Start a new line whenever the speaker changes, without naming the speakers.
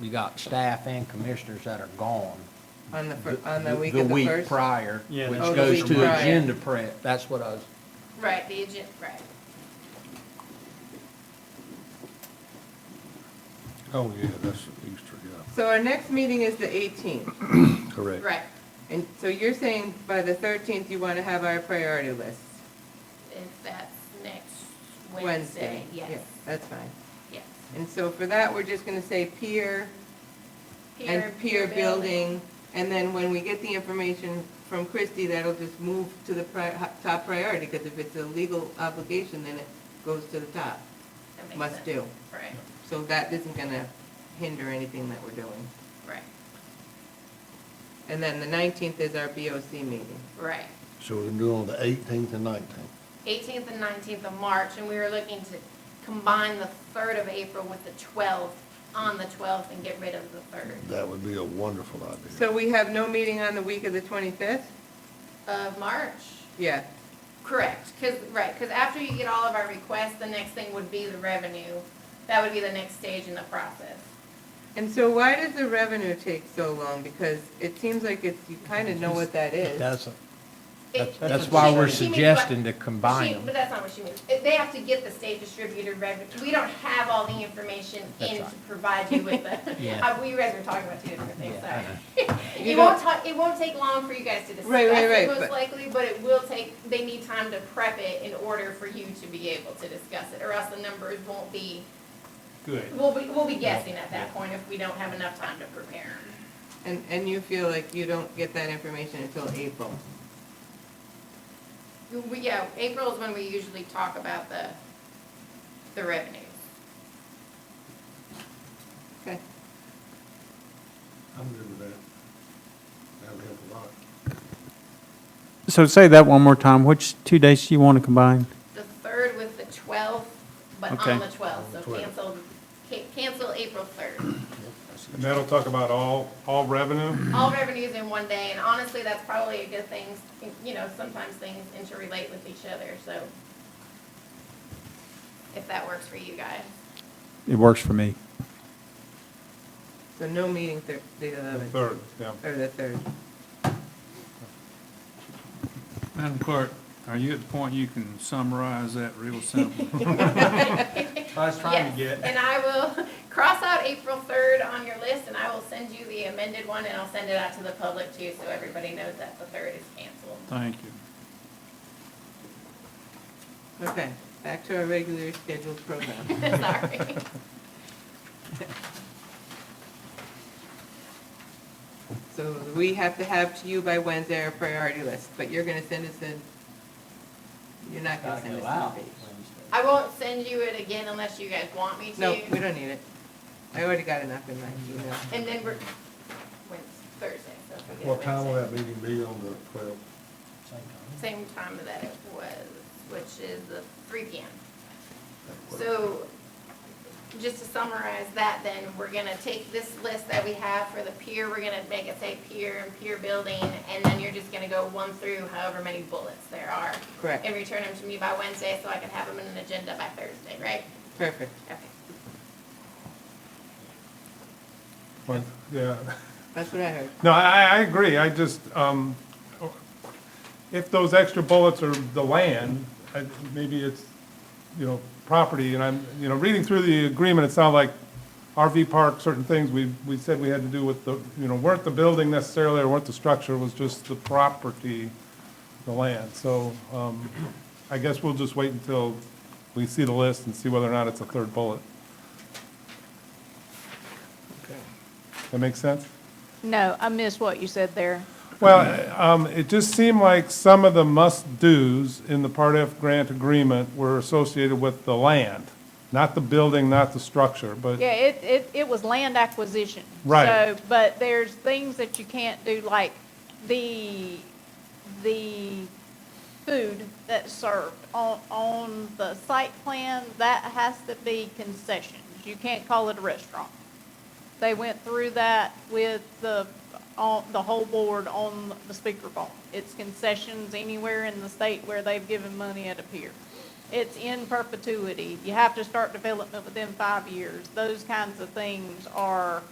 you got staff and commissioners that are gone.
on the, fir- on the week of the
week
first?
prior,
Yeah,
which
that's-
Oh, the
goes
week
to
prior.
agenda prep, that's what I was,
Right, the agenda, right.
Oh, yeah, that's Easter, yeah,
So our next meeting is the eighteenth,
correct.
Right,
and so you're saying by the thirteenth, you want to have our priority list?
if that's next
Wednesday?
Wednesday, yes,
Yeah, That's fine.
yes.
And so for that, we're just gonna say peer and peer building, and then when we get the information from Christie, that'll just move to the pri- ho- top priority, because if it's a legal obligation, then it goes to the top,
That makes
must
sense.
do.
Right,
So that isn't gonna hinder anything that we're doing.
right,
And then the nineteenth is our BOC meeting.
right.
So we're gonna do it on the eighteenth and nineteenth.
Eighteenth and nineteenth of March, and we were looking to combine the third of April with the twelfth, on the twelfth, and get rid of the third
That would be a wonderful idea.
So we have no meeting on the week of the twenty-fifth?
of March.
Yeah,
Correct, because, right, because after you get all of our requests, the next thing would be the revenue. That would be the next stage in the process.
and so why does the revenue take so long? Because it seems like it's, you kinda know what that is.
doesn't.
It-
That's
she-
why we're
she means what-
suggesting to
she-
combine
But
them.
that's not what she means. It- They have to get the state distributed revenue. We don't have all the information
That's
in to
right.
provide you with the,
Yeah.
Uh, we, you guys are talking about two different things,
Yeah, uh-huh. I
sorry.
know.
It
You
won't ta, it won't take long for you guys to discuss
Right, right, right,
it most
but-
likely, but it will take, they need time to prep it in order for you to be able to discuss it, or else the numbers won't be
Good.
We'll be, we'll be guessing at that point if we don't have enough time to prepare.
And, and you feel like you don't get that information until April?
We, yeah, April is when we usually talk about the, the revenues.
Okay.
I'm good with that. That would help a lot.
So say that one more time. Which two dates do you want to combine?
The third with the twelfth, but
Okay.
on the twelfth, so cancel, ca- cancel April third.
And that'll talk about all, all revenue?
All revenues in one day, and honestly, that's probably a good thing. You know, sometimes things interrelate with each other, so if that works for you guys.
It works for me.
So no meeting thir- the eleventh,
Third, yeah.
or the third?
Madam Clerk, are you at the point you can summarize that real simple?
I was trying to
Yes,
get,
And I will cross out April third on your list, and I will send you the amended one, and I'll send it out to the public too, so everybody knows that the third is canceled.
Thank you.
Okay, back to our regular scheduled program.
Sorry.
So we have to have to you by Wednesday our priority list, but you're gonna send us a, you're not gonna
gotta
send
go
us
out.
a page.
I won't send you it again unless you guys want me to.
No, we don't need it. I already got enough in my email.
And then we're, Wednesday, Thursday, so if we get
What time will
Wednesday.
that meeting be on the twelfth?
Same time that it was, which is the three P M. So, just to summarize that then, we're gonna take this list that we have for the pier, we're gonna make it say pier and pier building, and then you're just gonna go one through however many bullets there are.
Correct.
And return them to me by Wednesday, so I can have them in an agenda by Thursday, right?
Perfect.
Okay.
But, yeah.
That's what I heard.
No, I, I agree. I just, um, if those extra bullets are the land, I- maybe it's, you know, property, and I'm, you know, reading through the agreement, it sounded like RV park, certain things we, we said we had to do with the, you know, weren't the building necessarily, or weren't the structure, it was just the property, the land. So, um, I guess we'll just wait until we see the list and see whether or not it's a third bullet. That makes sense?
No, I missed what you said there.
Well, um, it just seemed like some of the must-dos in the Part F grant agreement were associated with the land, not the building, not the structure, but,
Yeah, it, it, it was land acquisition.
Right.
So, but there's things that you can't do, like the, the food that's served on, on the site plan, that has to be concessions. You can't call it a restaurant. They went through that with the, on, the whole board on the speakerphone. It's concessions anywhere in the state where they've given money at a pier. It's in perpetuity. You have to start development within five years. Those kinds of things are